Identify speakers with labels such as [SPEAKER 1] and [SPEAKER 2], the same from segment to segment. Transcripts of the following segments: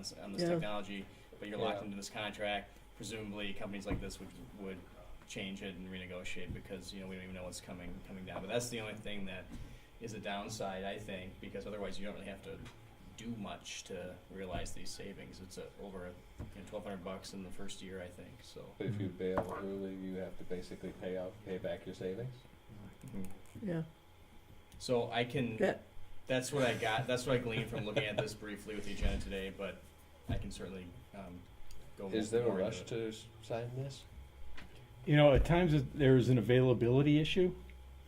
[SPEAKER 1] s- on this
[SPEAKER 2] Yeah.
[SPEAKER 1] technology, but you're locked
[SPEAKER 3] Yeah.
[SPEAKER 1] into this contract. Presumably, companies like this would would change it and renegotiate because you know we don't even know what's coming coming down. But that's the only thing that is a downside, I think, because otherwise you don't really have to do much to realize these savings. It's a, over you know, twelve hundred bucks in the first year, I think. So.
[SPEAKER 3] But if you bail early, you have to basically pay out, pay back your savings? Mm-hmm.
[SPEAKER 2] yeah,
[SPEAKER 1] So I can.
[SPEAKER 2] Yeah.
[SPEAKER 1] That's what I got. That's what I gleaned from looking at this briefly with the agenda today. But I can certainly um, go.
[SPEAKER 3] Is there a
[SPEAKER 1] more into
[SPEAKER 3] rush
[SPEAKER 1] it.
[SPEAKER 3] to s- sign this?
[SPEAKER 4] You know, at times it- there is an availability issue.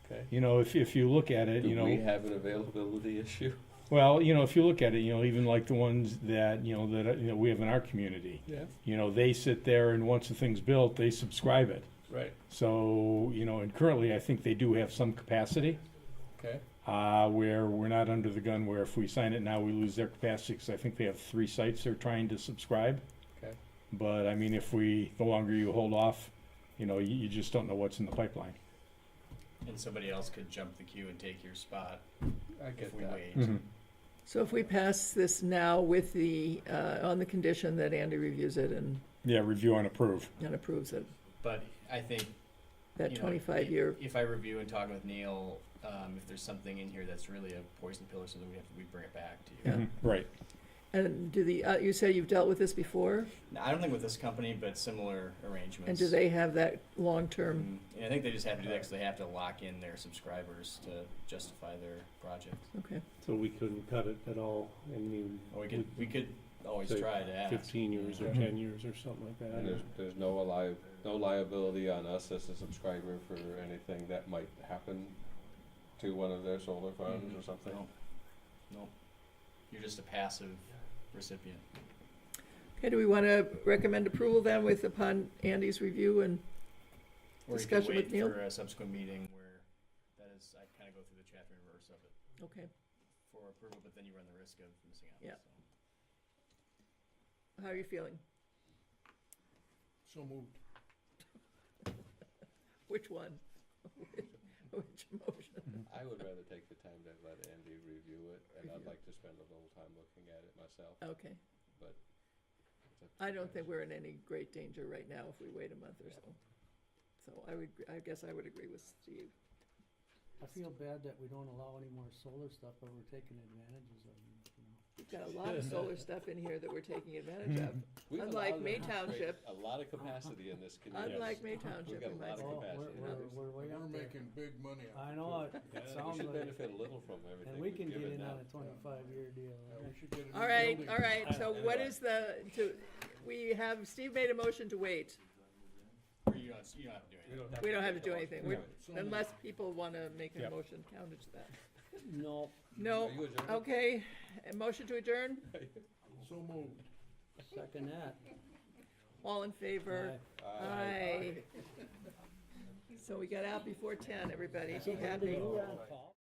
[SPEAKER 3] Okay.
[SPEAKER 4] You know, if, if you look at it, you
[SPEAKER 3] Do we
[SPEAKER 4] know,
[SPEAKER 3] have an availability issue?
[SPEAKER 4] well, you know, if you look at it, you know, even like the ones that, you know, that, uh, you know, we have in our community,
[SPEAKER 3] Yeah,
[SPEAKER 4] you know, they sit there and once the thing's built, they subscribe it.
[SPEAKER 3] right,
[SPEAKER 4] So, you know, and currently I think they do have some capacity,
[SPEAKER 3] okay.
[SPEAKER 4] uh, where we're not under the gun where if we sign it now, we lose their capacity because I think they have three sites they're trying to subscribe.
[SPEAKER 3] Okay.
[SPEAKER 4] But I mean, if we, the longer you hold off, you know, you, you just don't know what's in the pipeline.
[SPEAKER 1] And somebody else could jump the queue and take your spot
[SPEAKER 3] I
[SPEAKER 1] if
[SPEAKER 3] get
[SPEAKER 1] we
[SPEAKER 3] that.
[SPEAKER 1] wait.
[SPEAKER 5] Mm-hmm.
[SPEAKER 2] so if we pass this now with the, uh, on the condition that Andy reviews it and,
[SPEAKER 4] Yeah, review and approve.
[SPEAKER 2] and approves it,
[SPEAKER 1] But I think
[SPEAKER 2] that
[SPEAKER 1] you know,
[SPEAKER 2] twenty-five
[SPEAKER 1] i-
[SPEAKER 2] year,
[SPEAKER 1] If I review and talk with Neil, um, if there's something in here that's really a poison pill or something, we have to, we bring it back to you.
[SPEAKER 2] Yeah.
[SPEAKER 4] Mhm. Right.
[SPEAKER 2] and do the, uh, you say you've dealt with this before?
[SPEAKER 1] Now, I don't think with this company, but similar arrangements.
[SPEAKER 2] And do they have that long-term,
[SPEAKER 1] Mm, And I think they just have to do that because they have to lock in their subscribers to justify their project.
[SPEAKER 2] okay,
[SPEAKER 5] So we couldn't cut it at all, I mean,
[SPEAKER 1] Or we could we could always
[SPEAKER 5] Say
[SPEAKER 1] try to ask.
[SPEAKER 5] fifteen years or
[SPEAKER 4] Mhm.
[SPEAKER 5] ten years or something like that. I
[SPEAKER 3] And there's,
[SPEAKER 5] don't-
[SPEAKER 3] there's no lia- no liability on us as a subscriber for anything that might happen to one of their solar farms or
[SPEAKER 1] Mhm.
[SPEAKER 3] something?
[SPEAKER 1] No. Nope. You're just a passive recipient.
[SPEAKER 2] okay, do we wanna recommend approval then with upon Andy's review and,
[SPEAKER 1] Or you
[SPEAKER 2] Discussion
[SPEAKER 1] can
[SPEAKER 2] with
[SPEAKER 1] wait
[SPEAKER 2] Neil?
[SPEAKER 1] for a subsequent meeting where that is, I kind of go through the chapter and verse of it
[SPEAKER 2] okay,
[SPEAKER 1] for approval, but then you run the risk of missing out.
[SPEAKER 2] Yeah.
[SPEAKER 1] so.
[SPEAKER 2] how are you feeling?
[SPEAKER 5] So moved.
[SPEAKER 2] Which one? Which motion?
[SPEAKER 3] I would rather take the time to let Andy review it, and I'd
[SPEAKER 2] Review.
[SPEAKER 3] like to spend a little time looking at it myself.
[SPEAKER 2] Okay,
[SPEAKER 3] It's up to
[SPEAKER 2] I
[SPEAKER 3] you
[SPEAKER 2] don't
[SPEAKER 3] guys.
[SPEAKER 2] think we're in any great danger right now if we wait a month or so. So I would, I guess I would agree with Steve.
[SPEAKER 6] I feel bad that we don't allow any more solar stuff, but we're taking advantages of it, you know.
[SPEAKER 2] We've got a lot of solar stuff in here that we're taking advantage of.
[SPEAKER 3] We've
[SPEAKER 2] Unlike
[SPEAKER 3] allowed-
[SPEAKER 2] May
[SPEAKER 3] wait,
[SPEAKER 2] Township. Uh-huh.
[SPEAKER 3] A lot of capacity in this community.
[SPEAKER 2] Unlike May Township,
[SPEAKER 3] got a
[SPEAKER 2] we
[SPEAKER 3] lot
[SPEAKER 2] might
[SPEAKER 3] of
[SPEAKER 2] say.
[SPEAKER 6] Oh, we're,
[SPEAKER 3] capacity.
[SPEAKER 6] we're, we're way
[SPEAKER 5] We're
[SPEAKER 6] out there.
[SPEAKER 5] making big money
[SPEAKER 6] I
[SPEAKER 5] off
[SPEAKER 6] know, it
[SPEAKER 3] Yeah,
[SPEAKER 6] it
[SPEAKER 3] we
[SPEAKER 6] sounds
[SPEAKER 3] should
[SPEAKER 6] like, it.
[SPEAKER 3] benefit a little from uh, everything
[SPEAKER 6] and we
[SPEAKER 3] we've
[SPEAKER 6] can get
[SPEAKER 3] given
[SPEAKER 6] in
[SPEAKER 3] now.
[SPEAKER 6] on a twenty-five year deal, right?
[SPEAKER 2] Uh, All right, all right, so what is the, to, we have, Steve made a motion to wait,
[SPEAKER 1] Or you don't, you don't have to do anything.
[SPEAKER 2] We don't have to do anything. We're-
[SPEAKER 5] So
[SPEAKER 2] unless people wanna make a
[SPEAKER 4] Yep.
[SPEAKER 2] motion counted to that.
[SPEAKER 6] No,
[SPEAKER 2] No,
[SPEAKER 3] Are you adjourned?
[SPEAKER 2] okay, a motion to adjourn,
[SPEAKER 5] So moved.
[SPEAKER 6] second that.
[SPEAKER 2] all in favor?
[SPEAKER 3] Uh,
[SPEAKER 2] Aye. So we got out before ten, everybody, be happy.
[SPEAKER 6] You on, Paul?